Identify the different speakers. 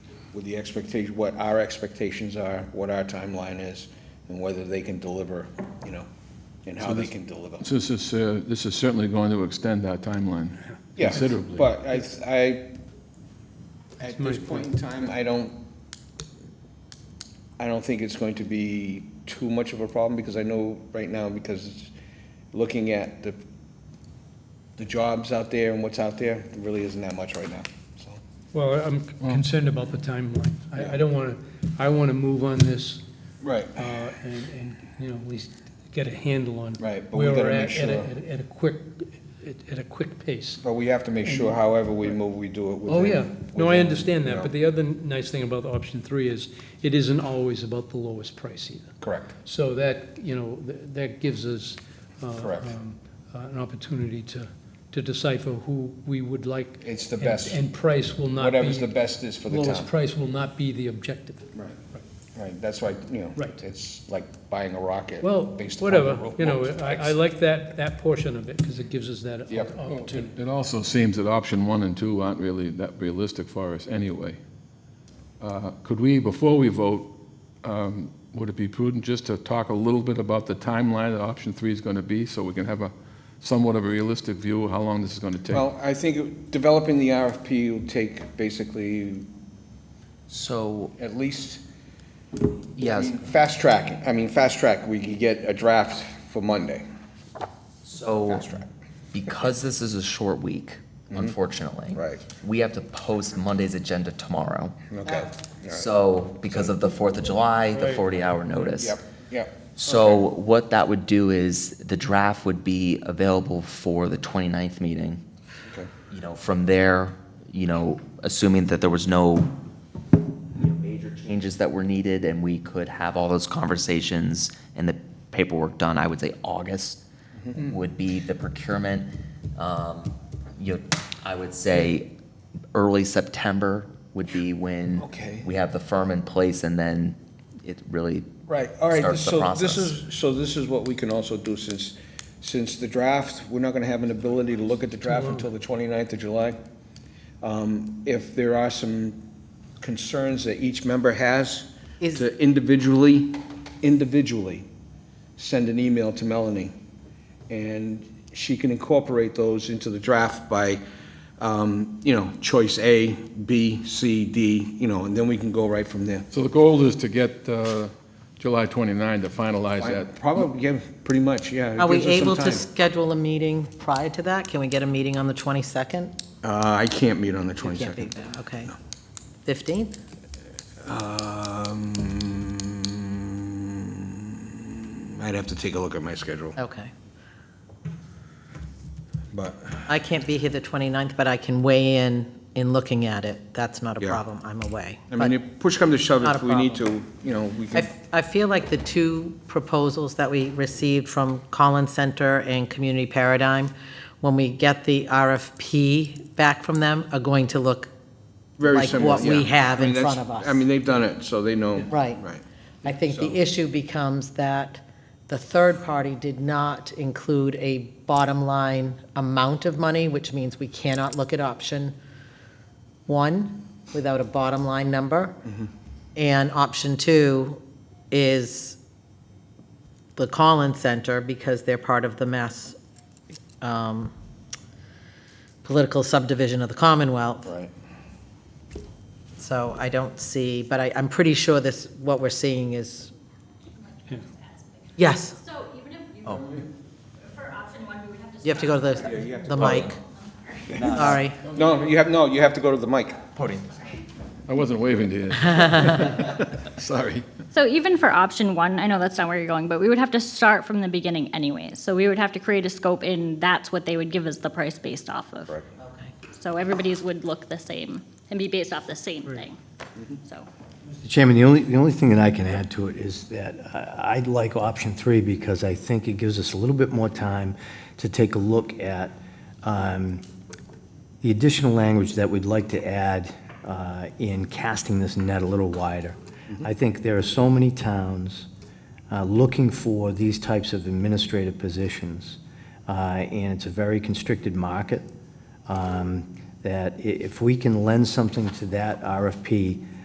Speaker 1: with the expectation, what our expectations are, what our timeline is, and whether they can deliver, you know, and how they can deliver.
Speaker 2: So This is, uh, this is certainly going to extend our timeline
Speaker 1: Yeah,
Speaker 2: considerably.
Speaker 1: But I, I, at this point in time, I don't, I don't think it's going to be too much of a problem, because I know right now, because it's- looking at the, the jobs out there and what's out there, there really isn't that much right now, so.
Speaker 3: Well, I'm concerned about the timeline. I, I don't want to, I want to move on this,
Speaker 1: Right.
Speaker 3: uh, and, and, you know, at least get a handle on.
Speaker 1: Right, but we
Speaker 3: where
Speaker 1: gotta
Speaker 3: we're at
Speaker 1: make
Speaker 3: at a-
Speaker 1: sure.
Speaker 3: At a- at a quick, at- at a quick pace.
Speaker 1: But we have to make sure however we move, we do it within.
Speaker 3: Oh, yeah. No, I
Speaker 1: within,
Speaker 3: understand
Speaker 1: you
Speaker 3: that, but
Speaker 1: know,
Speaker 3: the other nice thing about option three is it isn't always about the lowest price either.
Speaker 1: Correct,
Speaker 3: So that, you know, th- that gives us. uh,
Speaker 1: Correct.
Speaker 3: um, uh, An opportunity to, to decipher who we would like.
Speaker 1: It's the
Speaker 3: and-
Speaker 1: best.
Speaker 3: And price will not be.
Speaker 1: whatever's the best is for the
Speaker 3: Lowest
Speaker 1: town.
Speaker 3: price will not be the objective.
Speaker 1: Right, right, that's why, you know,
Speaker 3: Right.
Speaker 1: it's like buying a rocket.
Speaker 3: Well,
Speaker 1: based upon the
Speaker 3: whatever,
Speaker 1: ro-
Speaker 3: you know,
Speaker 1: lowest
Speaker 3: I,
Speaker 1: price.
Speaker 3: I like that, that portion of it, because it gives us that
Speaker 1: Yep.
Speaker 3: op- opportunity.
Speaker 2: It also seems that option one and two aren't really that realistic for us anyway. Uh, Could we, before we vote, um, would it be prudent just to talk a little bit about the timeline that option three is going to be, so we can have a somewhat of a realistic view of how long this is going to take?
Speaker 1: Well, I think developing the RFP will take basically
Speaker 4: So,
Speaker 1: at least, I
Speaker 4: yes,
Speaker 1: mean, fast track, I mean, fast track, we could get a draft for Monday,
Speaker 4: so
Speaker 1: fast track. Mm-hmm.
Speaker 4: because this is a short week, unfortunately.
Speaker 1: Right.
Speaker 4: We have to post Monday's agenda tomorrow.
Speaker 1: Okay, all right.
Speaker 4: So, because of the Fourth of July, the forty-hour notice.
Speaker 1: Yep, yep,
Speaker 4: So what that would do is the draft would be available for the 29th meeting.
Speaker 1: okay,
Speaker 4: You know, from there, you know, assuming that there was no you know, major changes that were needed and we could have all those conversations and the paperwork done, I would say August would be the procurement. Um, You, know, I would say early September would be when
Speaker 1: Okay.
Speaker 4: we have the firm in place and then it really
Speaker 1: right, all right,
Speaker 4: Starts the
Speaker 1: so this
Speaker 4: process.
Speaker 1: is, so this is what we can also do, since, since the draft, we're not gonna have an ability to look at the draft until the 29th of July. Um, If there are some concerns that each member has,
Speaker 5: Is-
Speaker 1: to individually, individually send an email to Melanie, and she can incorporate those into the draft by, um, you know, choice A, B, C, D, you know, and then we can go right from there.
Speaker 2: So the goal is to get uh, July 29 to finalize that.
Speaker 1: Probably, yeah, pretty much, yeah. it
Speaker 5: Are we
Speaker 1: gives us some
Speaker 5: able to
Speaker 1: time.
Speaker 5: schedule a meeting prior to that? Can we get a meeting on the 22nd?
Speaker 1: Uh, I can't meet on the
Speaker 5: We Can't be
Speaker 1: 22nd.
Speaker 5: there, okay. 15th?
Speaker 1: Um, I'd have to take a look at my schedule,
Speaker 5: Okay.
Speaker 1: but,
Speaker 5: I can't be here the 29th, but I can weigh in, in looking at it. That's not a
Speaker 1: Yeah.
Speaker 5: problem, I'm away.
Speaker 1: I mean,
Speaker 5: But
Speaker 1: if push come to shove,
Speaker 5: Not a
Speaker 1: if we need to, you know, we can.
Speaker 5: I, I feel like the two proposals that we received from Collins Center and Community Paradigm, when we get the RFP back from them, are going to look
Speaker 1: Very
Speaker 5: like
Speaker 1: similar,
Speaker 5: what we
Speaker 1: yeah.
Speaker 5: have
Speaker 1: I mean,
Speaker 5: in
Speaker 1: that's-
Speaker 5: front of us.
Speaker 1: I mean, they've done it, so they know.
Speaker 5: Right.
Speaker 1: Right.
Speaker 5: I think
Speaker 1: So-
Speaker 5: the issue becomes that the third party did not include a bottom line amount of money, which means we cannot look at option one without a bottom line number.
Speaker 1: Mm-hmm.
Speaker 5: And option two is the Collins Center, because they're part of the Mass um, Political Subdivision of the Commonwealth.
Speaker 1: Right.
Speaker 5: So I don't see, but I, I'm pretty sure this, what we're seeing is, yes,
Speaker 6: So even if you, for option one, we would have to.
Speaker 5: you have to go to
Speaker 1: you
Speaker 5: the,
Speaker 1: have to
Speaker 5: the
Speaker 1: go.
Speaker 5: mic. Sorry.
Speaker 1: No, you have, no, you have to go to the mic.
Speaker 4: Podium.
Speaker 2: I wasn't waving to you. Sorry.
Speaker 6: So even for option one, I know that's not where you're going, but we would have to start from the beginning anyways. So we would have to create a scope and that's what they would give us the price based off of.
Speaker 1: Correct.
Speaker 5: Okay.
Speaker 6: So everybody's would look the same and be based off the same thing, so.
Speaker 7: Mr. Chairman, the only, the only thing that I can add to it is that I I like option three because I think it gives us a little bit more time to take a look at um, the additional language that we'd like to add uh, in casting this net a little wider. I think there are so many towns uh, looking for these types of administrative positions, uh, and it's a very constricted market, um, that i- if we can lend something to that RFP